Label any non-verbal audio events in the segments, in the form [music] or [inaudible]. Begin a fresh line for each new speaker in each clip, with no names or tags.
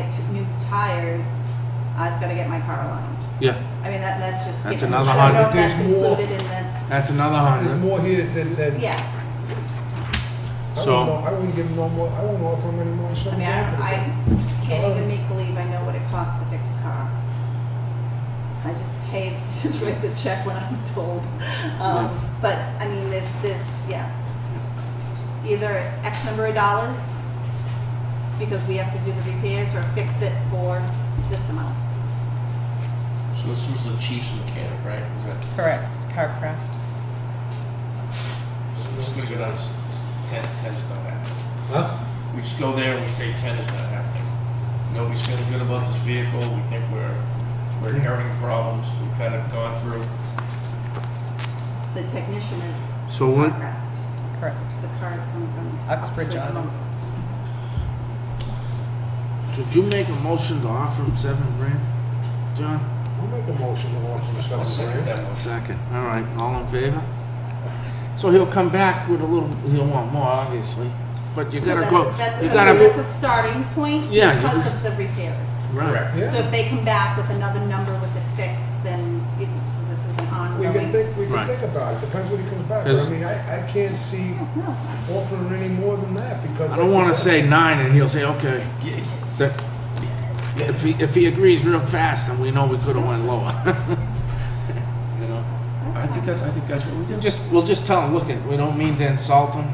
t- new tires, I've got to get my car aligned.
Yeah,
I mean, that, that's just.
That's
skipping.
another
I don't know if
hundred.
that's
There's more.
included in this.
that's another
There's
hundred.
more here than, than.
Yeah,
I wouldn't
So-
know- I wouldn't give him no more, I wouldn't offer him any more.
I mean, I, don't- I can't even make believe I know what it costs to fix a car. I just [laughs] pay, just write the check when I'm told. Um, But, I mean, this, this, yeah. Either X number of dollars, because we have to do the repairs, or fix it for this amount.
So this was the chief's mechanic, right? Was that?
Correct, Carcraft.
So this could be us. Ten, ten's not happening.
Huh?
We just go there and we say ten is not happening. Nobody's feeling good about this vehicle. We think we're we're inheriting problems. We've kind of gone through.
The technician is
So when,
Craft.
Correct.
The car is coming from.
Uxbridge Island.
Montrose.
should you make a motion to offer him seven grand, John?
I'll make a motion to offer him seven
I'll second
grand.
that motion.
Second, all right, all in favor? So he'll come back with a little, he'll want more, obviously, but you
So
gotta
that's-
go,
That's,
you
I mean,
gotta,
that's a starting point
Yeah, you-
because of the repairs.
right,
So
Yeah,
if they come back with another number with a fix, then it, so this is an
we
ongoing.
can think, we
Right.
can think about it, depends what he comes back, with.
Is-
I mean, I, I can't see
No,
offering any more than that, because.
I don't wanna say nine and he'll say, okay,
Yeah, yeah.
that, if he, if he agrees real fast, then we know we could've went lower. [laughs] You know?
I think that's I think that's what we do.
Just, we'll just tell him, look, it, we don't mean to insult him,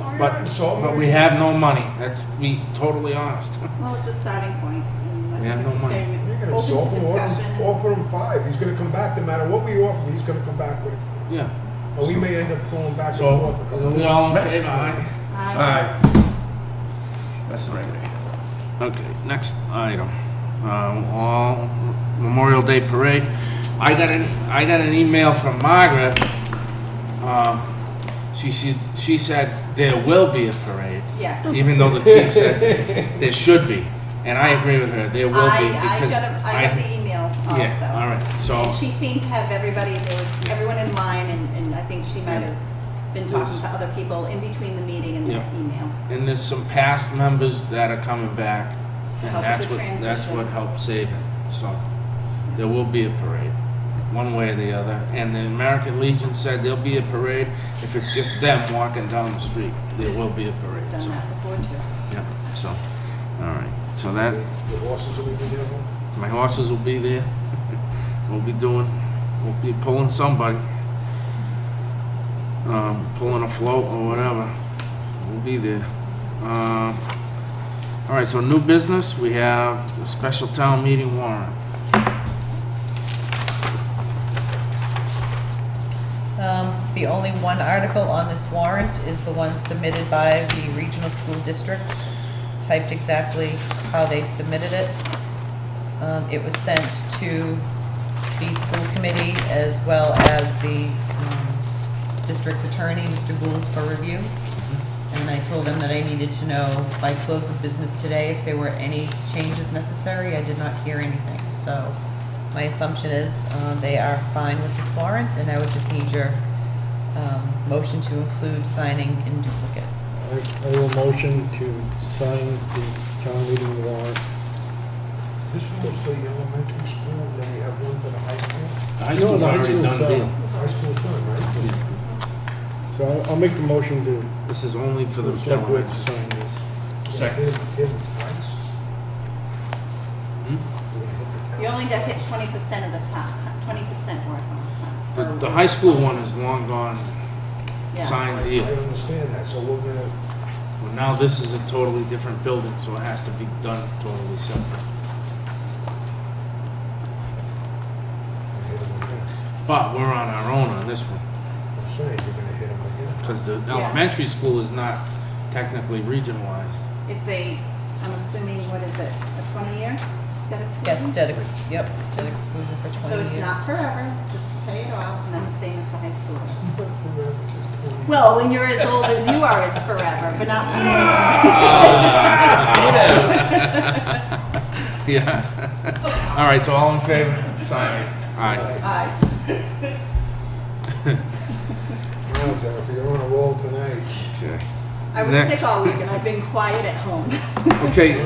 Oh, you're
but-
not insulting
but
me.
we have no money, that's, be totally honest. [laughs]
well, it's a starting point. and I
We have
think
no
you're
money.
saying
You're gonna
open to
insult him, offer
discussion
him,
and-
offer him five, he's gonna come back, no matter what we offer him, he's gonna come back with it.
Yeah.
Or we may end up pulling back and
So,
forth. a couple
are we
times.
all in favor, aye?
I-
Aye. That's the right way.
Okay, next item, um, all Memorial Day Parade. I got an, I got an email from Margaret. Um, she said, she said there will be a parade,
Yeah.
even though the chief said there should be. And I agree with her, there will
I,
be
I
because
got a, I got the email also.
Yeah, all right,
And
so,
She seemed to have everybody, there was everyone in line and, and I think she might
Yeah.
have been
There's-
talking to other people in between the meeting and that
Yeah.
email.
and there's some past members that are coming back. And
Help
that's
with
what,
the
that's
transition.
what helped save it, so. There will be a parade, one way or the other. And the American Legion said there'll be a parade if it's just them walking down the street. There will be a parade.
Done
So,
that before too.
yeah. So, all right. So that
The horses will be there.
my horses will be there. we'll be doing. We'll be pulling somebody. Um, pulling a float or whatever. We'll be there. Um, all right. So new business. We have a special town meeting warrant.
Um, the only one article on this warrant is the one submitted by the regional school district, typed exactly how they submitted it. Um, it was sent to the school committee as well as the, um, district's attorney, Mr. Gould, for review. And I told them that I needed to know by close of business today if there were any changes necessary. I did not hear anything, so my assumption is uh, they are fine with this warrant, and I would just need your um, motion to include signing in duplicate.
I I will motion to sign the town meeting warrant.
This one was for the elementary school, and then we have one for the high school.
The high
No,
school's
the high
already
school's
done
done.
deal.
High school's done, right?
So I'll- I'll make the motion to,
This is only for
for
the
the select board to
Delaware.
sign this.
Second.
Hit hit it twice.
Hmm?
We're gonna hit the town.
You only got hit twenty percent of the time, twenty percent worth last time.
The, the high school one is long gone,
Yeah.
signed
I
deal.
understand that, so we're gonna,
Well, now this is a totally different building, so it has to be done totally separate.
hit him again.
But we're on our own on this one,
I'm saying, you're gonna hit him again.
because the elementary school is not technically regionalized. [laughs]
It's a, I'm assuming, what is it, a twenty year? Debt exclusion?
Yes, debt ex, yep, debt exclusion for 20
So
years.
it's not forever, just pay it off, and that's the same as the high school.
But for real, it's just twenty.
Well, when you're as old as you are, it's forever, but not
[laughs] Yeah. All right, so all in favor, sign. All right.
Aye.
Wow, Jennifer, you're on a roll tonight.
Okay. [laughs]
I was
Next.
sick all week, and I've been quiet at home. [laughs]
Okay,